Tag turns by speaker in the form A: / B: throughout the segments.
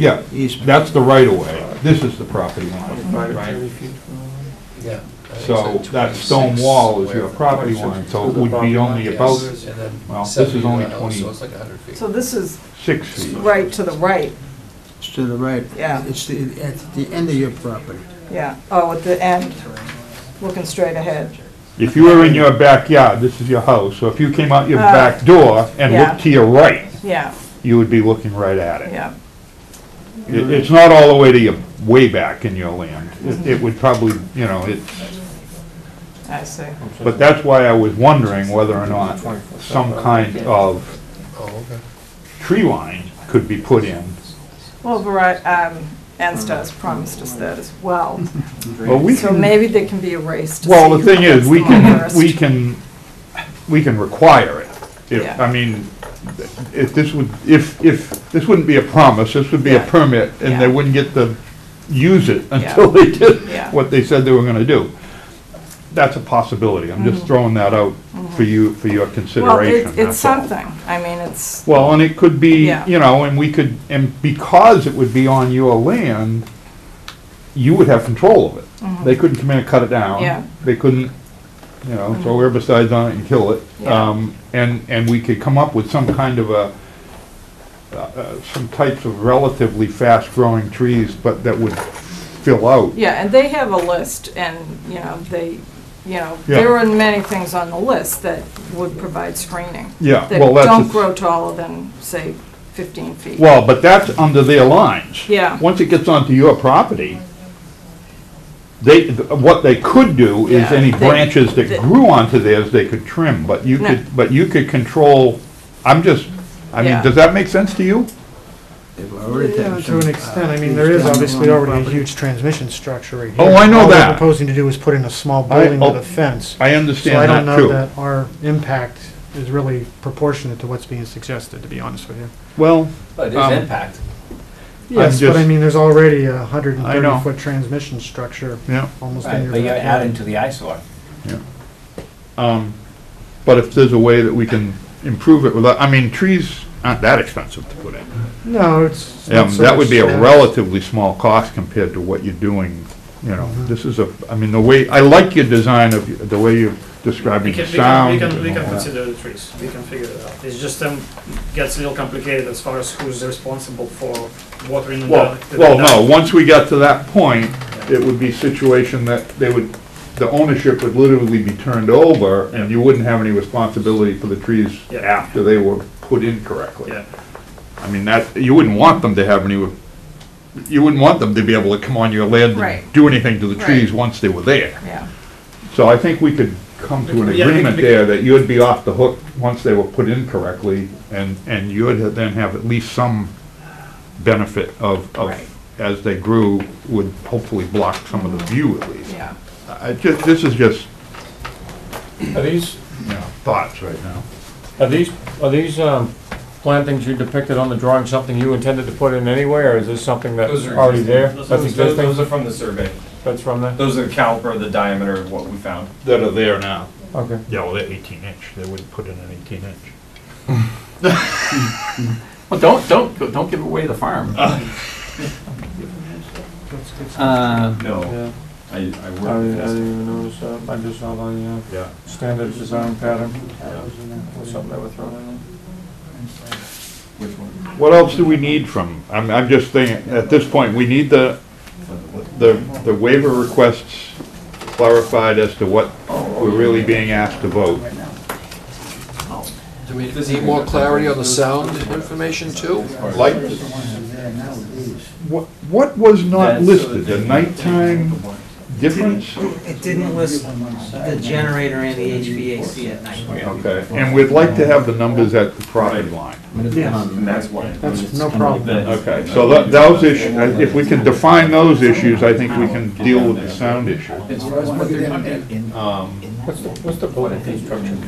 A: Yeah,
B: Easement.
A: that's the right of way. This is the property line.
C: Yeah. I think
A: So
C: it's
A: that
C: 26
A: stone wall is your
C: square.
A: property line, so it would be only
C: Yes,
A: about
C: and then
A: well, this
C: 70
A: is only
C: miles,
A: 20.
C: So it's like 100 feet.
D: So this is
A: six feet.
D: right to the right,
B: It's to the right.
D: Yeah.
B: It's the, at the end of your property.
D: yeah. Oh, at the end, looking straight ahead.
A: If you were in your backyard, this is your house, so if you came out your
D: Uh,
A: back door and
D: yeah.
A: looked to your right,
D: Yeah,
A: you would be looking right at it.
D: yeah.
A: It- It's not all the way to your, way back in your land. It- It would probably, you know, it's,
D: I see.
A: but that's why I was wondering whether or not some kind of
C: Oh, okay.
A: tree line could be put in.
D: Well, Verizon, um, Anstar's promised us that as well.
A: Well, we
D: So
A: can-
D: maybe they can be erased. to
A: Well, the
D: see
A: thing
D: who
A: is,
D: gets
A: we
D: them on
A: can,
D: first.
A: we can, we can require it. If,
D: Yeah.
A: I mean, if this would, if, if, this wouldn't be a promise, this would be a
D: Yeah.
A: permit, and they
D: Yeah.
A: wouldn't get to use it
D: Yeah.
A: until they
D: Yeah.
A: did what they said they were gonna do. That's a possibility, I'm just throwing that out for you, for your
D: Mm-hmm. Well,
A: consideration.
D: it- it's
A: that's all.
D: something. I mean, it's,
A: Well, and it could be,
D: Yeah.
A: you know, and we could, and because it would be on your land, you would have control of it. They couldn't come in and cut it down.
D: Mm-hmm. Yeah. Mm-hmm.
A: They couldn't, you know, throw herbicides on it and kill it.
D: Yeah.
A: Um, and, and we could come up with some kind of a, uh, uh, some types of relatively fast-growing trees, but that would fill out.
D: yeah, and they have a list and, you know, they, you know,
A: Yeah.
D: there are many things on the list that would provide screening.
A: Yeah,
D: That
A: well, that's
D: don't
A: a-
D: grow taller than, say, 15 feet.
A: Well, but that's under their lines.
D: Yeah.
A: Once it gets onto your property, they, what they could do is
D: Yeah,
A: any
D: they-
A: branches that
D: they-
A: grew onto theirs, they could trim, but you
D: No.
A: could, but you could control, I'm just, I mean,
D: Yeah.
A: does that make sense to you?
B: They've already
E: Yeah,
B: taken
E: to an
B: some.
E: extent, I
B: uh,
E: mean, there is
B: down
E: obviously
B: along the
E: already a
B: property.
E: huge transmission structure right
A: Oh,
E: here.
A: I know
E: All we're
A: that.
E: proposing to do is put in a small
A: I-
E: building
A: oh,
E: with a fence.
A: I
E: So I
A: understand that
E: don't know
A: too.
E: that our impact is really proportionate to what's being suggested, to be honest with you.
A: Well,
C: But
A: it is Um,
C: impact.
E: Yes, but I
A: just-
E: mean, there's already a hundred and
A: I know.
E: thirty foot transmission structure
A: yeah,
E: almost in
F: Right,
E: your
F: but you're adding
E: backyard.
F: to the eyesore.
A: um, but if there's a way that we can improve it without, I mean, trees aren't that expensive to put in.
E: No, it's. not
A: Um,
E: so
A: that would
E: much
A: be a
E: that.
A: relatively small cost compared to what you're doing, you know, this is a, I mean, the way, I like your design of, the way you're
G: We
A: describing the
G: can, we can, we
A: sound.
G: can, we
A: and
G: can
A: all that.
G: consider the trees, we can figure it out. It's just, um, gets a little complicated as far as who's responsible for watering the.
A: Well,
G: the-
A: well,
G: the-
A: no, once we got to that point, it would be situation that they would, the ownership would literally be turned over, and you wouldn't have any responsibility for the trees
G: Yeah.
A: after they were put in correctly.
G: Yeah,
A: I mean, that, you wouldn't want them to have any, you wouldn't want them to be able to come on your land and
D: Right.
A: do anything to the
D: Right.
A: trees once they were there.
D: Yeah,
A: So I think we could come to an
G: Yeah, I think
A: agreement
G: we-
A: there that you'd be off the hook once they were put in correctly, and, and you would then have at least some benefit of, of,
D: Right.
A: as they grew, would hopefully block some of the view at least.
D: yeah.
A: I ju, this is just,
H: Are these,
A: you know, thoughts right now.
H: are these, are these um, plantings you depicted on the drawing something you intended to put in anyway, or is this something that's
I: Those are
H: already there?
G: Those-
H: That's
I: Those, those- those
H: existing,
I: are from the survey.
H: that's from there?
I: Those are the caliper, the diameter of what we found.
A: That are there now.
H: Okay.
A: Yeah, well, they're eighteen inch, they wouldn't put in an eighteen inch.
F: Well, don't, don't, don't give away the farm. Uh,
I: No, I, I
E: Uh,
H: I
I: work with
H: didn't
I: this.
H: even notice that, I just saw the uh,
A: Yeah.
H: standard design pattern, something they were throwing in
I: Which one?
A: What else do we need from, I'm, I'm just thinking, at this point, we need the, the, the waiver requests clarified as to what we're really being asked to vote.
C: Do we need more clarity on the sound information too?
A: Like, what, what was not
F: That's-
A: listed, the nighttime
E: uh,
A: difference?
B: It didn't list the generator and the HVAC at night.
A: Okay, and we'd like to have the numbers at the property line.
I: And that's why.
E: That's no problem.
A: Okay, so tho- those issues, if we can define those issues, I think we can deal with the sound issue.
I: As far as what they're gonna do.
H: Um, What's the building construction?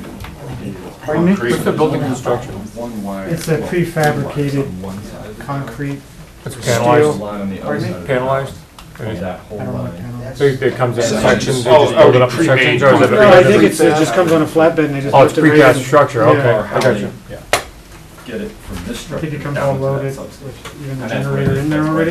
E: Pardon me?
H: What's the building construction?
I: One wire.
E: It's a prefabricated concrete,
H: It's
I: Steel
H: panelized,
I: line on the other
E: Pardon me?
I: side.
H: panelized?
I: And That whole
E: I don't know what
I: line.
E: panel.
H: So it comes in sections, they
A: Oh,
H: just build it
A: oh,
H: up in
A: pre-made
H: sections, or is it?
E: No, I think it's, it just comes on a flatbed and they just.
H: Oh,
E: lift
H: it's
E: it right in.
H: precast structure, okay,
E: Yeah.
H: I got you.
I: Yeah. get it from this
E: I
I: structure
E: think it comes
I: down
E: all
I: to that
E: loaded
I: substation.
E: with even the
I: And that's where it
E: generator
I: is.
E: in there
I: That's where
E: already.